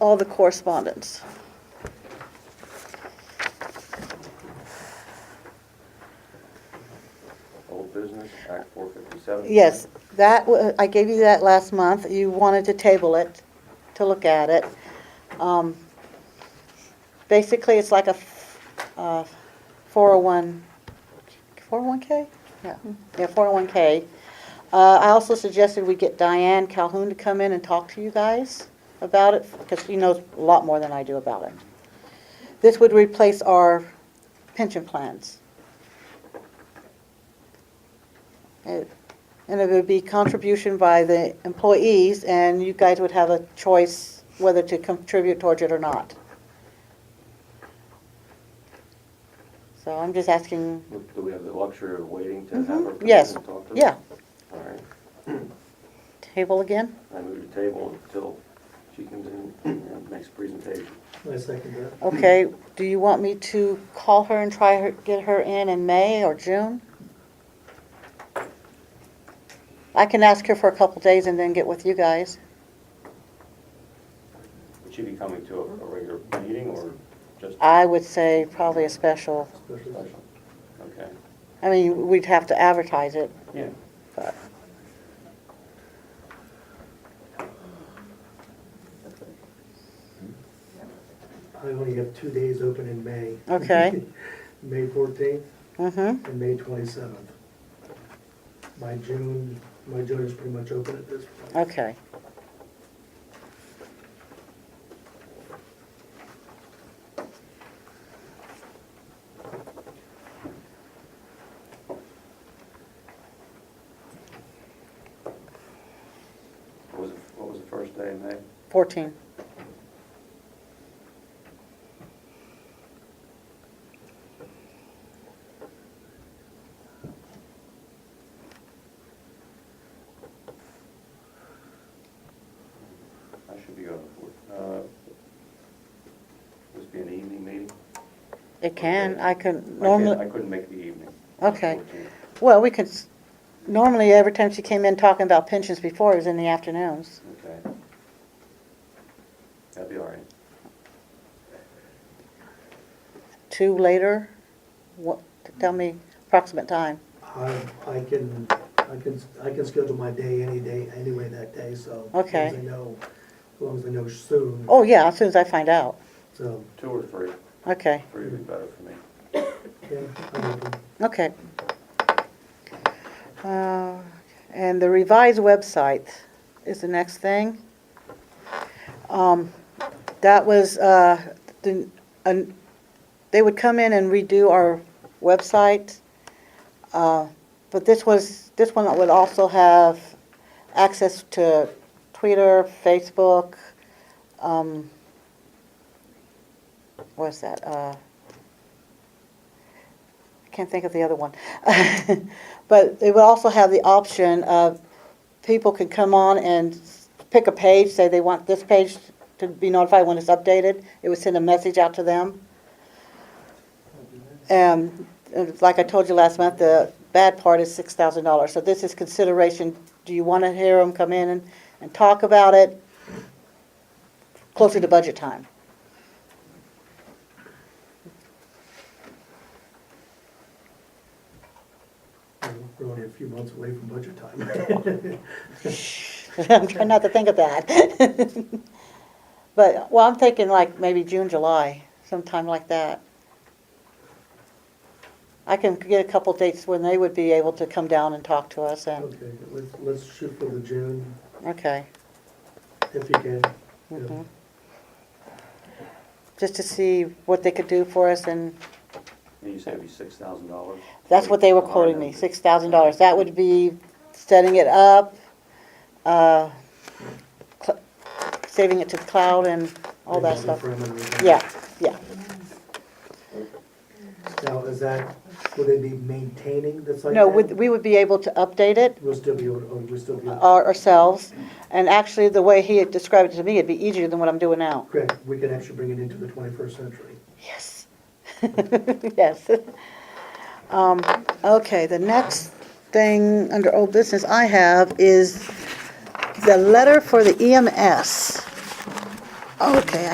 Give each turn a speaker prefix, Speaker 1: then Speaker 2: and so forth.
Speaker 1: all the correspondence.
Speaker 2: Old business, Act 457.
Speaker 1: Yes, that, wa- I gave you that last month. You wanted to table it, to look at it. Um, Basically, it's like a f- uh, 401, 401K? Yeah, yeah, 401K. Uh, I also suggested we get Diane Calhoun to come in and talk to you guys about it, because she knows a lot more than I do about it. This would replace our pension plans. It- And it would be contribution by the employees, and you guys would have a choice whether to contribute towards it or not. So I'm just asking,
Speaker 2: Do we have the luxury of waiting to have her come in
Speaker 1: Mm-hmm. yes,
Speaker 2: and talk to us?
Speaker 1: yeah,
Speaker 2: All right,
Speaker 1: table again?
Speaker 2: I move to table until she comes in and makes a presentation.
Speaker 3: I second that.
Speaker 1: Okay, do you want me to call her and try her, get her in in May or June? I can ask her for a couple days and then get with you guys.
Speaker 2: Would she be coming to a a regular meeting or just
Speaker 1: I would say probably a special,
Speaker 3: Special.
Speaker 2: special? Okay,
Speaker 1: I mean, we'd have to advertise it,
Speaker 2: yeah.
Speaker 1: but.
Speaker 3: I only have two days open in May.
Speaker 1: Okay.
Speaker 3: May fourteenth
Speaker 1: Mm-hmm.
Speaker 3: and May twenty-seventh. My June, my June is pretty much open at this point.
Speaker 1: Okay.
Speaker 2: What was, the- what was the first day in May?
Speaker 1: 14.
Speaker 2: I should be going for, uh, this be an evening meeting?
Speaker 1: It can,
Speaker 2: Okay.
Speaker 1: I can,
Speaker 2: I can't- I
Speaker 1: normally,
Speaker 2: couldn't make the evening.
Speaker 1: Okay.
Speaker 2: 14th.
Speaker 1: well, we could, s- normally, every time she came in talking about pensions before, it was in the afternoons.
Speaker 2: Okay. That'd be all right.
Speaker 1: Two later, what, tell me approximate time.
Speaker 3: I, I can, I can, I can schedule my day any day, anyway that day, so.
Speaker 1: Okay.
Speaker 3: As long as I know, as long as I know soon,
Speaker 1: Oh, yeah, as soon as I find out.
Speaker 3: so,
Speaker 2: Two or three,
Speaker 1: Okay,
Speaker 2: three would be better for me.
Speaker 3: yeah, I'm open.
Speaker 1: okay. Uh, And the revised website is the next thing. Um, That was, uh, the- an- they would come in and redo our website. Uh, But this was, this one would also have access to Twitter, Facebook, um, what's that? Uh, I can't think of the other one. But it would also have the option of, people could come on and pick a page, say they want this page to be notified when it's updated. It would send a message out to them. Um, and like I told you last month, the bad part is six thousand dollars, so this is consideration, do you wanna hear them come in and, and talk about it? Closer to budget time.
Speaker 3: We're only a few months away from budget time.
Speaker 1: I'm trying not to think of that. But, well, I'm thinking like maybe June, July, sometime like that. I can get a couple dates when they would be able to come down and talk to us and,
Speaker 3: Okay, let's, let's shoot for the June,
Speaker 1: okay.
Speaker 3: if you can. Yeah.
Speaker 1: mhm. Just to see what they could do for us and
Speaker 2: And you said it'd be six thousand dollars?
Speaker 1: That's what they were quoting me, six thousand dollars. That would be setting it up, uh, cl- saving it to the cloud and all that
Speaker 3: Maybe the
Speaker 1: stuff.
Speaker 3: parameter of it.
Speaker 1: Yeah, yeah.
Speaker 3: Now, is that, will they be maintaining the site?
Speaker 1: No,
Speaker 3: then?
Speaker 1: would- we would be able to update it
Speaker 3: We'll still be, able- oh, we'll still be, able-
Speaker 1: our- ourselves. And actually, the way he had described it to me, it'd be easier than what I'm doing now.
Speaker 3: correct, we can actually bring it into the twenty-first century.
Speaker 1: Yes. Yes. Um, Okay, the next thing under old business I have is the letter for the EMS. E Okay,